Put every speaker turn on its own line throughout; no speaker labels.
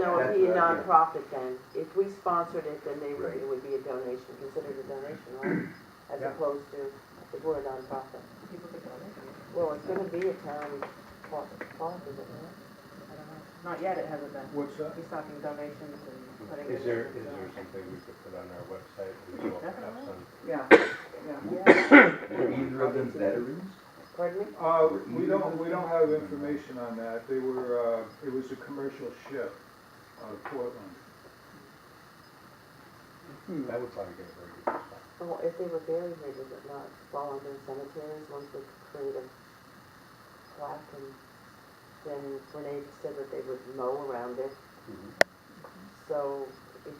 no, it'd be a
That's what I hear.
nonprofit then. If we sponsored it, then they would,
Right.
it would be a donation, considered a donation, right? As
Yeah.
opposed to, if we're a nonprofit. Well, it's gonna be a town park, park, is it not?
Not yet, it hasn't been.
What's that?
He's talking donations and putting.
Is
it
there,
in.
is there something we could put on our website? We don't have some-
Yeah, yeah.
Were either of them veterans?
Pardon me?
Uh, we don't, we don't have information on that. They were, uh, it was a commercial ship out of Portland.
That would probably get a very good response.
Well, if they were buried here, does it not fall under cemeteries once we create a plaque and then Renee said that they would mow around it, so it.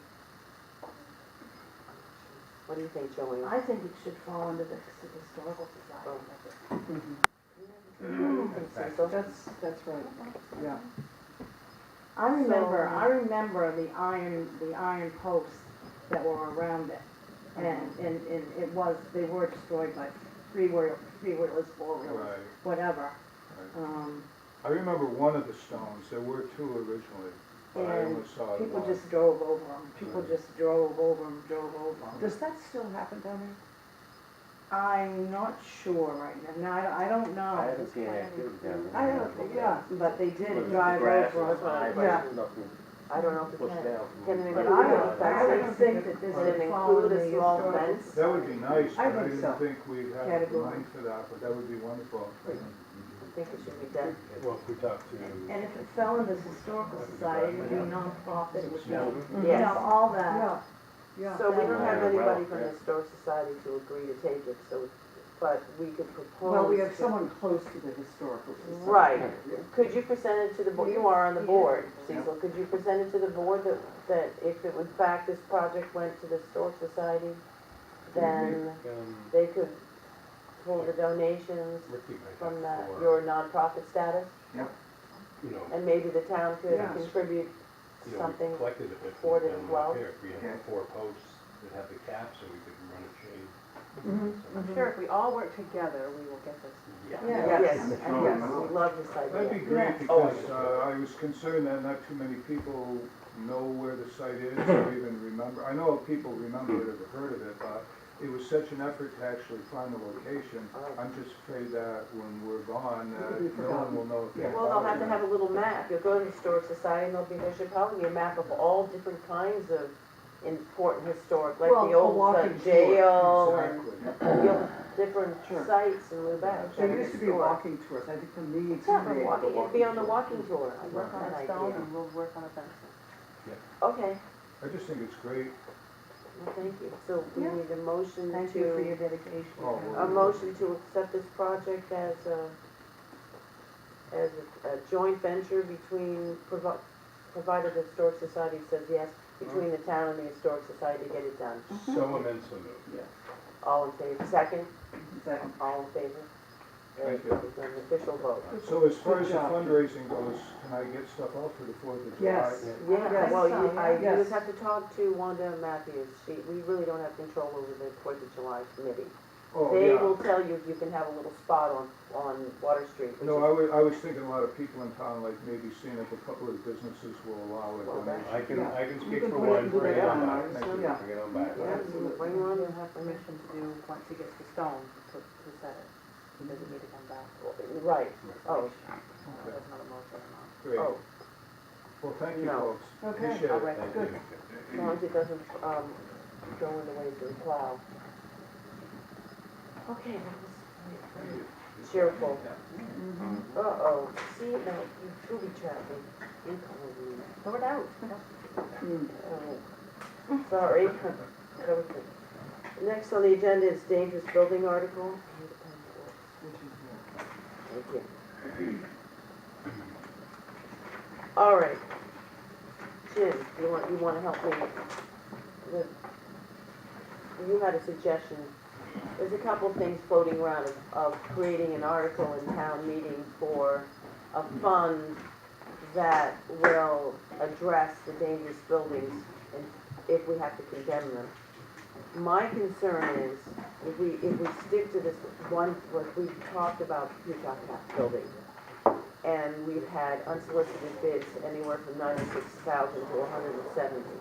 What do you think, Joanne?
I think it should fall under the historical society.
think so.
That's, that's right. Yeah.
I remember, I remember the iron, the iron posts that were around it. And, and, and it was, they were destroyed by three wheel, three wheelers, four wheelers,
Right,
whatever.
right.
Um,
I remember one of the stones. There were two originally, but I
And
only saw the
people
one.
just drove over them, people just drove over them, drove over them.
Does that still happen down there?
I'm not sure right now, no, I don't, I don't know.
I haven't seen activity down there.
Oh, I don't, yeah, but they
Look
did
at
drive
the grass and
over
that's
them.
what I-
Yeah.
Nothing
I don't know if we
pushed
can.
out.
Can we
But
include
I
the
would, I would
fences?
think that this
Can it
would fall
include
under
a
the
small
historical.
fence?
That would be nice,
I
but I
think so.
didn't think we'd have the
Category.
money for that, but that would be wonderful.
I think it should be done.
Well, if we talk to,
And if it fell under historical society, it would be nonprofit, it would be, you know,
Yes.
all that.
Yeah.
So we don't have
Yeah, well,
anybody from the
yeah.
Historic Society to agree to take it, so, but we could propose.
Well, we have
to-
someone close to the historical society.
Right. Could you present it to the, bo- you are on the board, Cecil, could you present it to the board that, that if it, in fact, this project went to the Historic Society, then
um,
they could pull the donations
Ricky might
from
have
the,
for,
your nonprofit status?
you know,
And maybe the town could
Yeah.
contribute
you know, we
something,
collected a bit
for
from
it as
them
well.
up here. If we had four posts that have the caps, so we could run a
Mm-hmm.
shade. So-
Sure, if we all work together, we will get this.
Yeah.
Yeah.
yes,
Yes.
and yes, we love this
That'd be
idea.
great
Oh,
because uh, I was concerned that not too many people know where the site is or even remember. I know people remember it or heard of it, but it was such an effort to actually find the location.
Oh.
I'm just afraid that when we're gone, uh,
It'll be
no one will know. if they
Well, they'll have to
followed
have a little map, you'll go to the Historic Society and there'll be, there should probably be a map of all different kinds of important historic, like
Well,
the
a
old uh,
walking tour.
jail
it.
and
Exactly.
you know, different
Sure.
sites in Lubec.
There used to be
Sure.
walking tours, I think the needs.
Yeah, for walking, it'd be on the walking tour, I love
Work on
that
a stone
idea.
and we'll work on a fence.
Okay,
I just think it's great.
well, thank you, so we
Yeah.
need a motion
Thank you for
to,
your dedication.
Oh, well.
a motion to accept this project as a, as a- a joint venture between, provi- provided the Historic Society says yes, between the town and the Historic Society to get it done.
So immensely moved.
All in favor, second,
Second.
all in favor?
Thank you.
It's an official vote.
So as far as
Good
the
job.
fundraising goes, can I get stuff out for the Fourth of July?
Yes.
Yeah,
Yes.
well, you, I, you
Yes.
would have to talk to Wanda Matthews, she, we really don't have control over the Fourth of July committee.
Oh,
They
yeah.
will tell you if you can have a little spot on, on Water Street, which
No, I
is,
was, I was thinking a lot of people in town, like maybe seeing if a couple of businesses will allow a
Well,
donation.
I can, I can
You
speak
can
for
put it
one,
into
bring
the
it on
calendar,
back.
so,
Thank you.
yeah.
Bring it on back.
Yeah. Absolutely.
Bring one, you'll have permission to do, once he gets the stone, to, to set it. He doesn't need to come back.
right, oh,
Uh, There's not a motion or
Great.
oh,
Well, thank you,
No.
folks.
Okay,
Appreciate
all
it.
right.
Thank
Good.
you.
as long as it doesn't, um, go in the way of the plow. Okay, that was cheerful. Uh-oh, see, now, you booby trapped me, you called me.
not. Throw it out.
Oh, Sorry. That was it. Next on the agenda is dangerous building article. Thank you. All right. Jim, you want, you want to help me? with- You had a suggestion. There's a couple of things floating around of, of creating an article in town meeting for a fund that will address the dangerous buildings and if we have to condemn them. My concern is if we, if we stick to this one, what we talked about, Peacock House building, and we've had unsolicited bids anywhere from ninety-six thousand to a hundred and seventy.